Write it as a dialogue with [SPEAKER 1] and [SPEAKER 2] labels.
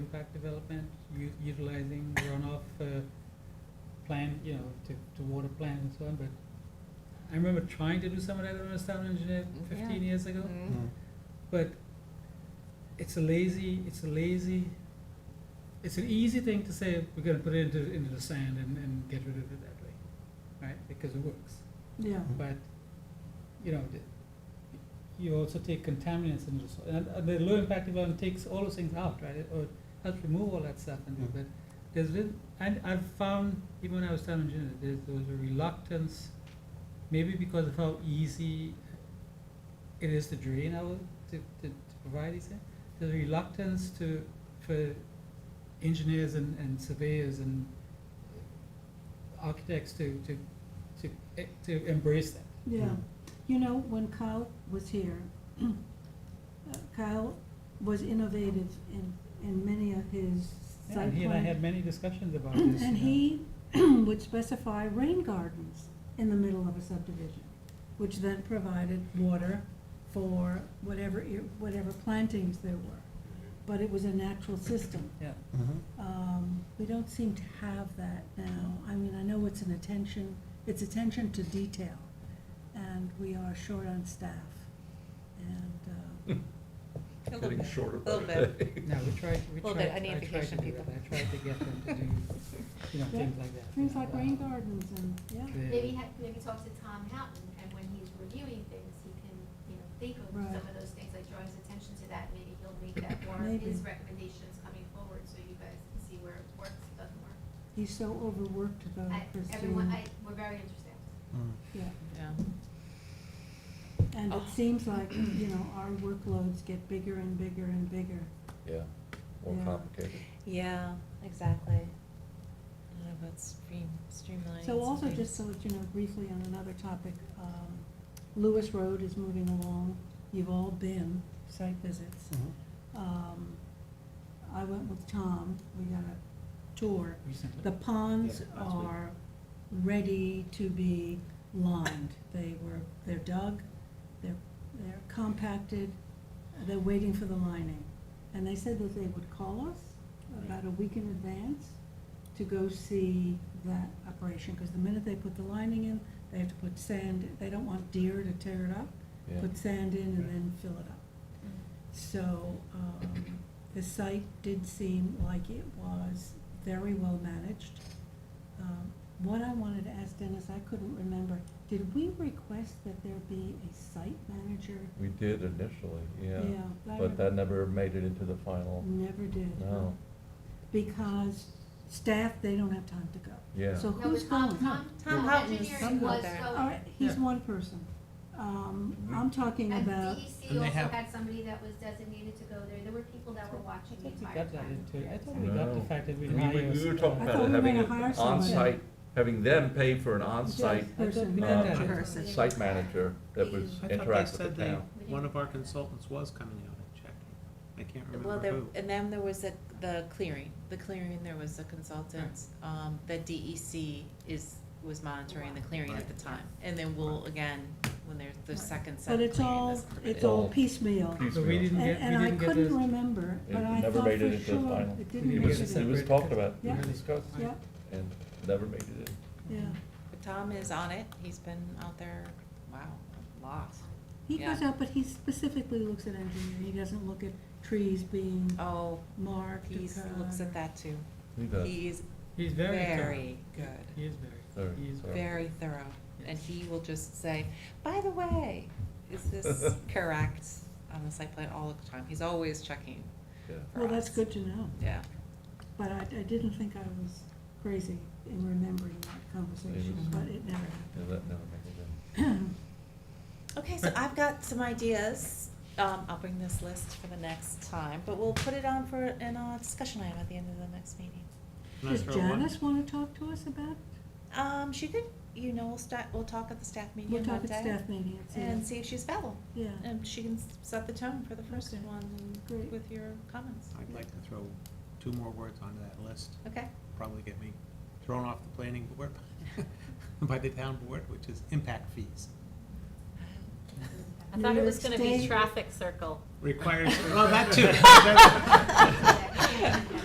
[SPEAKER 1] impact development, u- utilizing runoff, uh, plan, you know, to, to water plan and so on, but I remember trying to do some of that when I was town engineer fifteen years ago,
[SPEAKER 2] Mm-hmm.
[SPEAKER 3] Mm-hmm.
[SPEAKER 4] Mm.
[SPEAKER 1] but it's a lazy, it's a lazy, it's an easy thing to say, we're gonna put it into, into the sand and, and get rid of it that way, right, because it works.
[SPEAKER 5] Yeah,
[SPEAKER 1] But, you know, the- you also take contaminants into the soil, and uh, the low impact environment takes all those things out, right? It- Or helps remove all that stuff and do,
[SPEAKER 4] Mm.
[SPEAKER 1] but there's little, and I've found, even when I was town engineer, there's, there was a reluctance, maybe because of how easy it is to drain out, to, to, to provide these things. There's a reluctance to, for engineers and, and surveyors and architects to, to, to, eh, to embrace that.
[SPEAKER 5] yeah.
[SPEAKER 4] Mm.
[SPEAKER 5] You know, when Kyle was here, uh, Kyle was innovative in, in many of his site
[SPEAKER 1] And he and I
[SPEAKER 5] plan-
[SPEAKER 1] had many discussions about this.
[SPEAKER 5] And
[SPEAKER 1] you know.
[SPEAKER 5] he would specify rain gardens in the middle of a subdivision, which then provided water for whatever, ir- whatever plantings there were. But it was a natural system.
[SPEAKER 1] Yeah,
[SPEAKER 3] Mm-hmm.
[SPEAKER 4] Mhm.
[SPEAKER 2] Mm-hmm.
[SPEAKER 5] Um, we don't seem to have that now. I mean, I know it's an attention, it's attention to detail, and we are short on staff. And, uh,
[SPEAKER 2] A little
[SPEAKER 3] Getting
[SPEAKER 2] bit.
[SPEAKER 3] shorter.
[SPEAKER 2] A little bit.
[SPEAKER 1] no, we tried, we
[SPEAKER 2] Little
[SPEAKER 1] tried,
[SPEAKER 2] bit,
[SPEAKER 1] I
[SPEAKER 2] I need
[SPEAKER 1] tried to
[SPEAKER 2] vacation
[SPEAKER 1] do that,
[SPEAKER 2] people.
[SPEAKER 1] I tried to get them to do, you know,
[SPEAKER 5] Yeah.
[SPEAKER 1] things like that.
[SPEAKER 5] things like rain gardens and, yeah,
[SPEAKER 6] Maybe, ha- maybe talk to Tom Houghton, and when he's reviewing things, he can, you know, think of
[SPEAKER 5] Right.
[SPEAKER 6] some of those things, like draw his attention to that, maybe he'll make that more
[SPEAKER 5] Maybe.
[SPEAKER 6] his recommendations coming forward, so you guys can see where it works, doesn't work.
[SPEAKER 5] he's so overworked though,
[SPEAKER 6] I,
[SPEAKER 5] Oh, Christine.
[SPEAKER 6] everyone, I, we're very interested.
[SPEAKER 4] Mm.
[SPEAKER 2] Mm-hmm.
[SPEAKER 5] Yeah,
[SPEAKER 2] Yeah.
[SPEAKER 5] and it
[SPEAKER 2] Oh.
[SPEAKER 5] seems like, you know, our workloads get bigger and bigger and bigger.
[SPEAKER 3] Yeah, more
[SPEAKER 5] Yeah.
[SPEAKER 3] complicated.
[SPEAKER 2] Yeah, exactly. I don't know about stream, streamlining. some
[SPEAKER 5] So also,
[SPEAKER 2] things.
[SPEAKER 5] just so that you know, briefly on another topic, um, Lewis Road is moving along. You've all been site visits.
[SPEAKER 7] Mm-hmm.
[SPEAKER 4] Mhm.
[SPEAKER 5] Um, I went with Tom, we got a tour.
[SPEAKER 1] Recently.
[SPEAKER 5] The ponds
[SPEAKER 1] Yeah, last week.
[SPEAKER 5] are ready to be lined. They were, they're dug, they're, they're compacted, they're waiting for the lining. And they said that they would call us about a week in advance to go see that operation, because the minute they put the lining in, they have to put sand, they don't want deer to tear it up.
[SPEAKER 3] Yeah.
[SPEAKER 5] Put sand in and then fill it up. So, um, the site did seem like it was very well managed. Um, What I wanted to ask Dennis, I couldn't remember, did we request that there be a site manager?
[SPEAKER 3] We did initially, yeah.
[SPEAKER 5] Yeah, I Mm-hmm.
[SPEAKER 3] But that
[SPEAKER 5] remember.
[SPEAKER 3] never made it into the final,
[SPEAKER 5] Never did.
[SPEAKER 3] no,
[SPEAKER 5] Because staff, they don't have time to go.
[SPEAKER 3] yeah.
[SPEAKER 5] So
[SPEAKER 6] No,
[SPEAKER 5] who's
[SPEAKER 6] but Tom-
[SPEAKER 5] going?
[SPEAKER 6] Tom,
[SPEAKER 2] Tom
[SPEAKER 6] Tom
[SPEAKER 2] Houghton is
[SPEAKER 6] Engineering
[SPEAKER 2] somewhat
[SPEAKER 6] was
[SPEAKER 2] there.
[SPEAKER 6] going.
[SPEAKER 5] All right, he's
[SPEAKER 1] Yeah.
[SPEAKER 5] one person. Um, I'm talking
[SPEAKER 6] And
[SPEAKER 5] about,
[SPEAKER 6] DEC
[SPEAKER 1] And they
[SPEAKER 6] also
[SPEAKER 1] have-
[SPEAKER 6] had somebody that was designated to go there, there were people that were watching the
[SPEAKER 1] I thought we
[SPEAKER 6] entire
[SPEAKER 1] got that
[SPEAKER 6] time.
[SPEAKER 1] into, I thought we got the
[SPEAKER 3] No.
[SPEAKER 1] fact that we
[SPEAKER 3] We,
[SPEAKER 1] hire.
[SPEAKER 3] we- we were talking
[SPEAKER 5] I
[SPEAKER 3] about
[SPEAKER 5] thought we
[SPEAKER 3] having
[SPEAKER 5] were
[SPEAKER 3] an
[SPEAKER 5] gonna hire someone.
[SPEAKER 3] onsite, having them pay for an onsite
[SPEAKER 1] I thought we
[SPEAKER 5] person.
[SPEAKER 1] did
[SPEAKER 3] uh,
[SPEAKER 1] that.
[SPEAKER 6] Person.
[SPEAKER 3] site manager that was
[SPEAKER 7] I thought they
[SPEAKER 3] interactive
[SPEAKER 7] said
[SPEAKER 3] with the
[SPEAKER 7] they,
[SPEAKER 3] town.
[SPEAKER 7] one of our consultants was coming out and checking. I can't
[SPEAKER 2] Well,
[SPEAKER 7] remember
[SPEAKER 2] there,
[SPEAKER 7] who.
[SPEAKER 2] and then there was a, the clearing, the clearing, there was a consultant, um, that DEC is, was monitoring the clearing at the
[SPEAKER 7] Right.
[SPEAKER 2] time. And then we'll, again, when there's the second set
[SPEAKER 5] but
[SPEAKER 2] of
[SPEAKER 5] it's
[SPEAKER 2] clearing
[SPEAKER 5] all,
[SPEAKER 2] that's
[SPEAKER 5] it's
[SPEAKER 2] permitted.
[SPEAKER 5] all
[SPEAKER 3] All
[SPEAKER 5] piecemeal.
[SPEAKER 1] So we didn't
[SPEAKER 5] And,
[SPEAKER 1] get,
[SPEAKER 5] and
[SPEAKER 1] we
[SPEAKER 5] I
[SPEAKER 1] didn't get
[SPEAKER 5] couldn't
[SPEAKER 1] those,
[SPEAKER 5] remember,
[SPEAKER 3] It
[SPEAKER 5] but I
[SPEAKER 3] never
[SPEAKER 5] thought
[SPEAKER 3] made it
[SPEAKER 5] for
[SPEAKER 3] into the
[SPEAKER 5] sure,
[SPEAKER 3] final.
[SPEAKER 5] it
[SPEAKER 1] We
[SPEAKER 5] didn't
[SPEAKER 1] didn't
[SPEAKER 5] make
[SPEAKER 3] It
[SPEAKER 5] it
[SPEAKER 1] get
[SPEAKER 3] was,
[SPEAKER 5] in.
[SPEAKER 3] it was talked about, it
[SPEAKER 5] Yeah.
[SPEAKER 3] was discussed,
[SPEAKER 5] Yeah,
[SPEAKER 3] and never made it in.
[SPEAKER 5] yeah.
[SPEAKER 2] But Tom is on it, he's been out there, wow, a lot.
[SPEAKER 5] He
[SPEAKER 2] Yeah.
[SPEAKER 5] goes out, but he specifically looks at engineering, he doesn't look at trees being
[SPEAKER 2] Oh,
[SPEAKER 5] marked or
[SPEAKER 2] he looks
[SPEAKER 5] cut or-
[SPEAKER 2] at that too.
[SPEAKER 3] He does.
[SPEAKER 2] He is
[SPEAKER 1] he's very thorough.
[SPEAKER 2] very good.
[SPEAKER 1] He is very,
[SPEAKER 3] Very
[SPEAKER 1] he is
[SPEAKER 3] thorough.
[SPEAKER 1] very.
[SPEAKER 2] very thorough, and
[SPEAKER 1] Yes.
[SPEAKER 2] he will just say, by the way, is this correct on the site plan all the time? He's always checking
[SPEAKER 3] Yeah.
[SPEAKER 2] for
[SPEAKER 5] Well, that's
[SPEAKER 2] us.
[SPEAKER 5] good to know,
[SPEAKER 2] Yeah,
[SPEAKER 5] but I, I didn't think I was crazy in remembering that conversation,
[SPEAKER 2] was-
[SPEAKER 5] but it never
[SPEAKER 3] Yeah, that never made it in.
[SPEAKER 5] happened.
[SPEAKER 2] okay, so I've got some ideas, um, I'll bring this list for the next time, but we'll put it on for an, uh, discussion item at the end of the next meeting.
[SPEAKER 7] Can I
[SPEAKER 5] Does
[SPEAKER 7] throw one-
[SPEAKER 5] Janice wanna talk to us about,
[SPEAKER 2] Um, she could, you know, we'll sta we'll talk at the staff meeting
[SPEAKER 5] we'll
[SPEAKER 2] one day.
[SPEAKER 5] talk at staff meeting, it's,
[SPEAKER 2] And
[SPEAKER 5] yeah,
[SPEAKER 2] see if she's available,
[SPEAKER 5] yeah,
[SPEAKER 2] and she can s- set the tone for the first
[SPEAKER 5] Okay.
[SPEAKER 2] one
[SPEAKER 5] Great.
[SPEAKER 2] with your comments,
[SPEAKER 7] I'd like to throw two more words onto that list,
[SPEAKER 2] okay?
[SPEAKER 7] probably get me thrown off the planning board by the town board, which is impact fees.
[SPEAKER 8] I
[SPEAKER 5] New
[SPEAKER 8] thought it
[SPEAKER 5] York
[SPEAKER 8] was gonna be
[SPEAKER 5] State.
[SPEAKER 8] traffic circle.
[SPEAKER 7] Requires, oh, that too. That's-
[SPEAKER 6] Yeah, yeah, yeah.